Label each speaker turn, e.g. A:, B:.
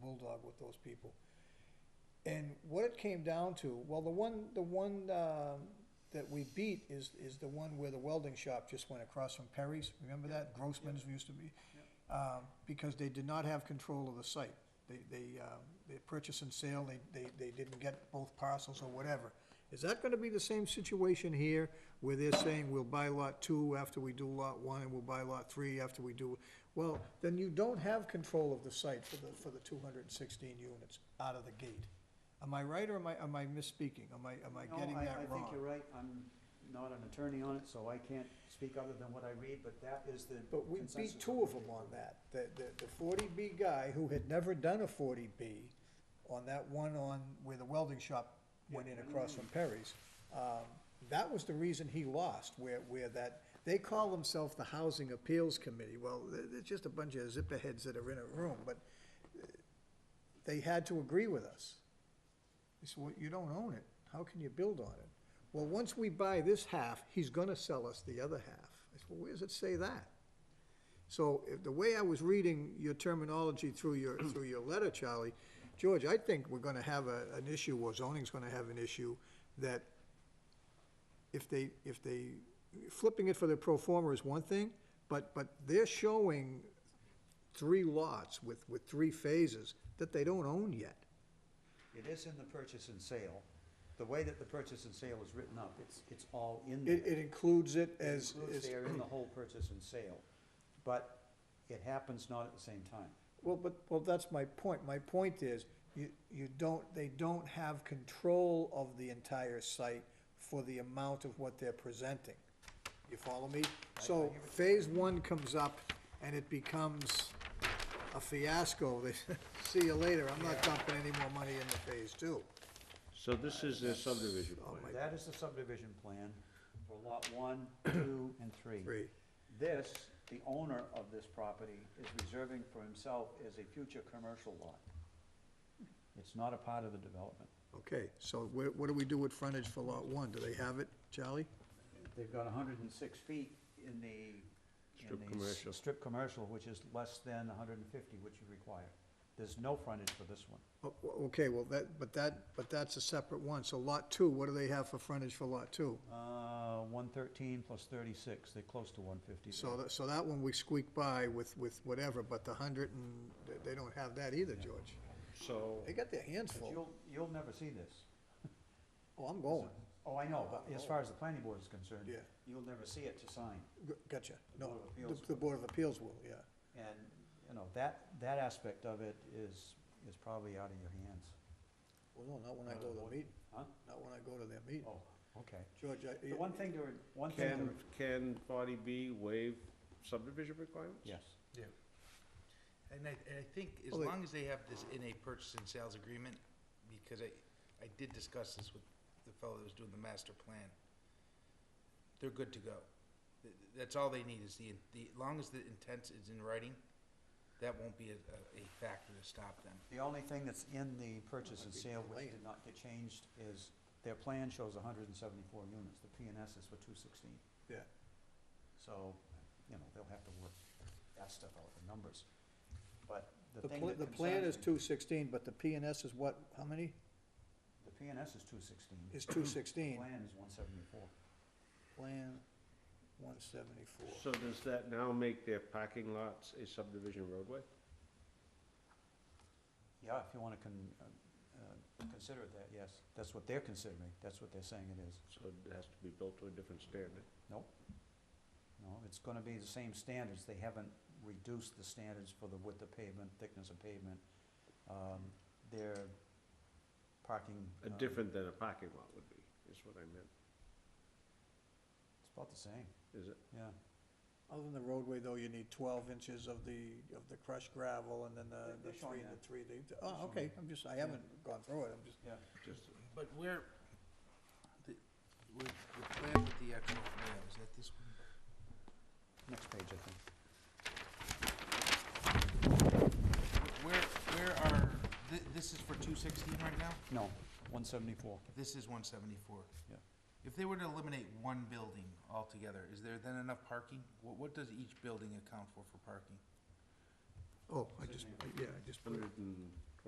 A: Bulldog with those people. And what it came down to, well, the one, the one, um, that we beat is, is the one where the welding shop just went across from Perry's, remember that? Grossman's used to be. Um, because they did not have control of the site. They, they, um, they purchase and sale, they, they, they didn't get both parcels or whatever. Is that gonna be the same situation here, where they're saying we'll buy lot two after we do lot one, and we'll buy lot three after we do? Well, then you don't have control of the site for the, for the two hundred and sixteen units out of the gate. Am I right, or am I, am I misspeaking? Am I, am I
B: No,
A: getting that
B: I think
A: wrong?
B: you're right, I'm not an attorney on it, so I can't speak other than what I read, but that is the
A: But we
B: consensus
A: beat
B: of
A: two
B: the
A: of them
B: group.
A: on that, the, the, the forty B guy who had never done a forty B on that one on where the welding shop went in
B: Yeah.
A: across from Perry's. Um, that was the reason he lost, where, where that, they call themselves the Housing Appeals Committee, well, they're, they're just a bunch of zipperheads that are in a room, but uh, they had to agree with us. He said, well, you don't own it, how can you build on it? Well, once we buy this half, he's gonna sell us the other half. I said, well, where does it say that? So if, the way I was reading your terminology through your, through your letter, Charlie, George, I think we're gonna have a, an issue, or zoning's gonna have an issue, that if they, if they, flipping it for the pro forma is one thing, but, but they're showing three lots with, with three phases that they don't own yet.
B: It is in the purchase and sale, the way that the purchase and sale is written up, it's, it's all in there.
A: It, it includes it
B: It
A: as,
B: includes
A: as,
B: They are in the whole purchase and sale, but it happens not at the same time.
A: well, but, well, that's my point. My point is, you, you don't, they don't have control of the entire site for the amount of what they're presenting. You follow me? So phase one comes up and it becomes a fiasco. They, see you later, I'm not dumping any more money into phase two.
C: So this is their subdivision
A: Oh,
C: plan.
B: That is the subdivision plan for lot one, two, and three.
A: Three.
B: This, the owner of this property is reserving for himself as a future commercial lot. It's not a part of the development.
A: Okay, so where, what do we do with frontage for lot one? Do they have it, Charlie?
B: They've got hundred and six feet in the. in
C: Strip
B: the s-
C: commercial.
B: Strip commercial, which is less than hundred and fifty, which you require. There's no frontage for this one.
A: O- o- Okay, well, that, but that, but that's a separate one. So lot two, what do they have for frontage for lot two?
B: Uh, one thirteen plus thirty-six, they're close to one fifty.
A: So that, so that one we squeak by with, with whatever, but the hundred and, they- they don't have that either, George.
C: So,
A: They got their hands
B: But
A: full.
B: you'll, you'll never see this.
A: Oh, I'm going.
B: Oh, I know, but as far as the planning board is concerned.
A: Yeah.
B: You'll never see it to sign.
A: G- Gotcha. No,
B: Board of
A: the-
B: Appeals
A: the
B: will.
A: Board of Appeals will, yeah.
B: And, you know, that, that aspect of it is, is probably out of your hands.
A: Well, no, not when I go to the meeting,
B: Huh?
A: not when I go to their meeting.
B: Oh, okay.
A: George, I.
B: The one thing to, re- one thing to,
C: can,
B: re-
C: can forty B waive subdivision requirements?
B: yes.
D: Yeah. And I, and I think as
A: Well, they-
D: long as they have this in a purchase and sales agreement, because I, I did discuss this with the fellow that was doing the master plan, they're good to go. Th- That's all they need is the, the, as long as the intent is in writing, that won't be a, a- a factor to stop them.
B: The only thing that's in the purchase and
A: Might be
B: sale which
A: delayed.
B: did not get changed is their plan shows hundred and seventy-four units. The P and S is for two sixteen.
A: Yeah.
B: So, you know, they'll have to work that stuff out, the numbers. But the
A: The
B: thing
A: pla-
B: that
A: the plan
B: concerns
A: is
B: me-
A: two sixteen, but the P and S is what, how many?
B: The P and S is two sixteen.
A: Is two sixteen.
B: Plan is one seventy-four.
A: Plan one seventy-four.
C: So does that now make their parking lots a subdivision roadway?
B: Yeah, if you wanna con, uh, uh, consider it that, yes. That's what they're considering. That's what they're saying it is.
C: So it has to be built to a different standard.
B: Nope. No, it's gonna be the same standards, they haven't reduced the standards for the width of pavement, thickness of pavement. Um, their parking.
C: A
B: um,
C: different than a parking lot would be, is what I meant,
B: It's about the same,
C: is it?
B: yeah.
A: Other than the roadway, though, you need twelve inches of the, of the crushed gravel and then the, the
B: They're- they're
A: three,
B: showing
A: the
B: that.
A: three, the,
B: They're
A: oh,
B: showing
A: okay,
B: that.
A: I'm just, I haven't gone through it, I'm just,
B: Yeah.
C: Just,
D: But where, the, with, the plan with the actual layout, is that this one?
B: Next page, I think.
D: Where, where are, thi- this is for two sixteen right now?
B: No, one seventy-four.
D: This is one seventy-four.
B: Yeah.
D: If they were to eliminate one building altogether, is there then enough parking? What, what does each building account for for parking?
A: oh, I just, yeah, I just put it,
C: hundred and